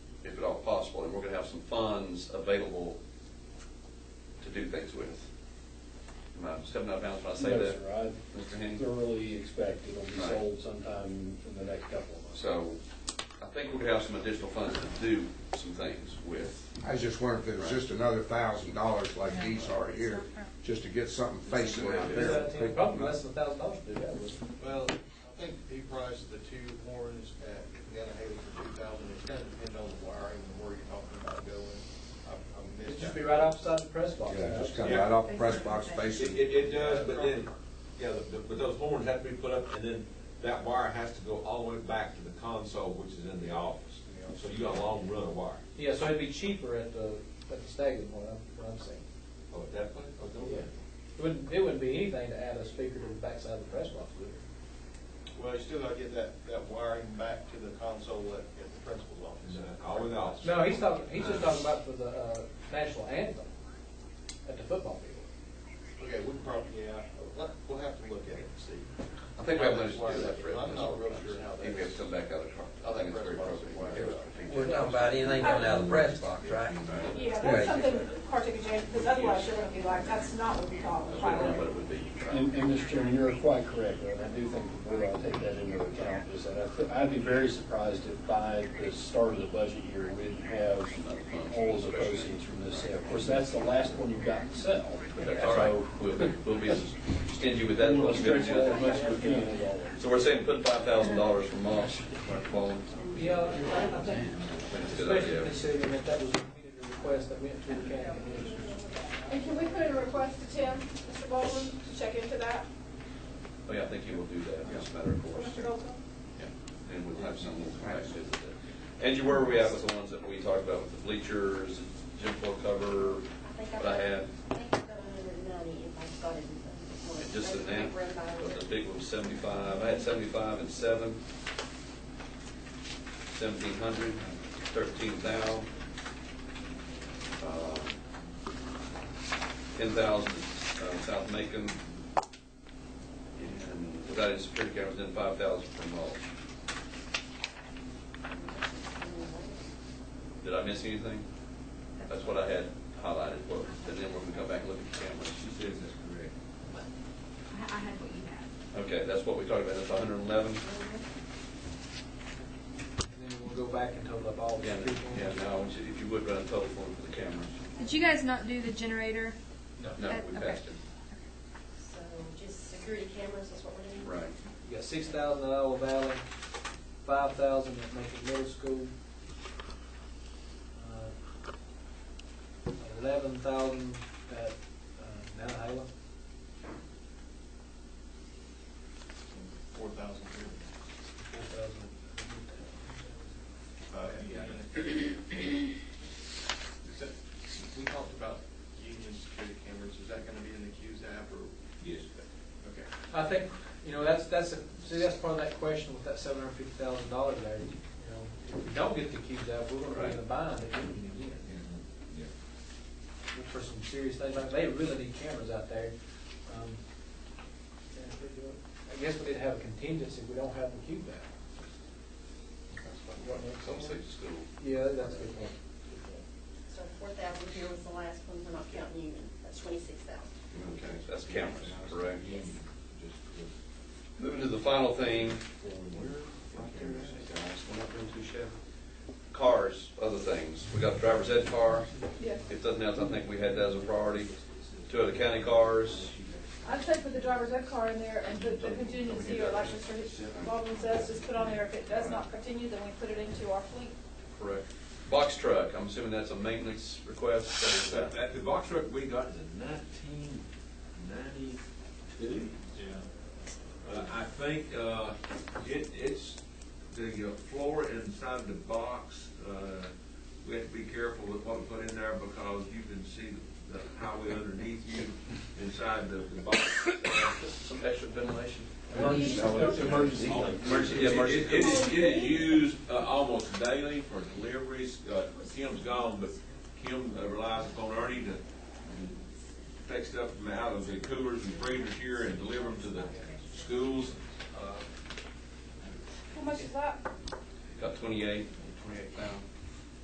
funds available to do things with. Am I stepping out of bounds when I say No, that? sir, Mr. I Henning? thoroughly expect it'll be Right. sold sometime in the next couple of months. So I think we could have some additional funds to do some things with. I was just wondering if it was just another thousand dollars like these are here, just to get something facing out Is there. that ten bucks? Less than a thousand dollars to do that, was Well, I think he priced the two horns at Nantahala for two thousand, it's gonna depend on the wiring and where you're talking about going. I- I missed It'd just that. be right outside the press box. Yeah, just come right off the press box It, facing. it, it does, but then, yeah, the- the- but those horns have to be put up, and then that wire has to go all the way back to the console, which is in the office. So you got a long run of wire. Yeah, so it'd be cheaper at the, at the stadium, what I'm, what I'm saying. Oh, at that place? Oh, no, Yeah. It wouldn't, it wouldn't be anything to add a speaker to the backside of the press box, would it? Well, you still gotta get that, that wiring back to the console at, at the principal's office. Nah, All in the office. No, he's talking, he's just talking about for the, uh, national anthem at the football field. Okay, we can probably, yeah, let- we'll have to look at it and see. I think we have money to Why do that, that- Fred. I'm not real sure how I think we have to come back out of the car. I think it's very appropriate. We're talking about anything coming out of the press box, right? Yeah, that's something particularly, James, because otherwise you're gonna be like, that's not what we call a That's what priority. it would be. And, and Mr. Chairman, you're quite correct, and I do think the board ought to take that into account, is that I thi- I'd be very surprised if by the start of the budget year, we didn't have all of the proceeds from this sale. Of course, that's the last one you've got to sell. That's all right. We'll be, we'll be stingy with that. So, we'll We'll give stretch it that as to much you. as we can, as always. So we're saying put five thousand dollars for mulch, phone. Yeah, I I think, That's a good especially idea. considering that that was a repeated request that went to the county commission. And can we put in a request to Tim, Mr. Baldwin, to check into that, Oh, yeah, I think you will do that. It's a matter of course. Mr. Goldblum? Yeah, And we'll have some little nice visit there. Angie, where were we at with the ones that we talked about with the bleachers, gym floor cover, what I had? I think I've got another ninety if I started. with them. And just the net, Right about but it. the big one was seventy-five, I had seventy-five and seven. Seventeen hundred, thirteen thou. Uh, Ten thousand, uh, South Macon. And without any security cameras, then five thousand from mulch. Did I miss anything? That's what I had highlighted, well, and then we're gonna come back and look at the cameras. She says that's correct. I I had what you had. Okay, that's what we talked about, that's hundred and eleven. And then we'll go back and total up all the Yeah, street yeah, ones. now, if you would run a total form for the cameras. Did you guys not do the generator? No, Uh, we okay. passed it. So just security cameras is what we're doing? Right. You got six thousand at Iowa Valley, five thousand at Macon Middle School, uh, eleven thousand at uh, Mount Hala, Four thousand here. four thousand. Uh, union- Is that, we talked about union security cameras, is that gonna be in the Q's app or? Yes. Okay. I think, you know, that's, that's, a- see, that's part of that question with that seven hundred fifty thousand dollars there. You know, if we don't get the cubes out, we're gonna be in a bind at the end of the year. Yeah. look for some serious things, like they really need cameras out there. Um, and if they do it- I guess we did have a contingency, we don't have the cube back. Some say school. Yeah, that's a good point. So four thousand here was the last one, we're not counting union, that's twenty-six thousand. Okay, that's cameras, correct? Yes. Just correct. Moving to the final thing, Before we went, Right there, guys. We're not doing too shabby. Cars, other things. We got the driver's ed car. Yeah. If nothing else, I think we had that as a priority. Two other county cars. I'd say put the driver's ed car in there and put the contingency, or like Mr. Baldwin says, just put on there, if it does not continue, then we put it into our fleet. Correct. Box truck, I'm assuming that's a maintenance request. so That, is that- that- the box truck we got is a nineteen ninety-two. Yeah. Uh, I think, uh, it, it's, the uh, floor inside the box, uh, we have to be careful with what we put in there because you can see the highway underneath you inside the, the box. Some extra ventilation. Emergency. Emergency, yeah, It emergency. it- it is, it is used uh, almost daily for deliveries. Uh, Kim's gone, but Kim uh, relies upon Ernie to take stuff from out of the coolers and freezers here and deliver them to the schools. How much is that? Got twenty-eight. Twenty-eight thousand.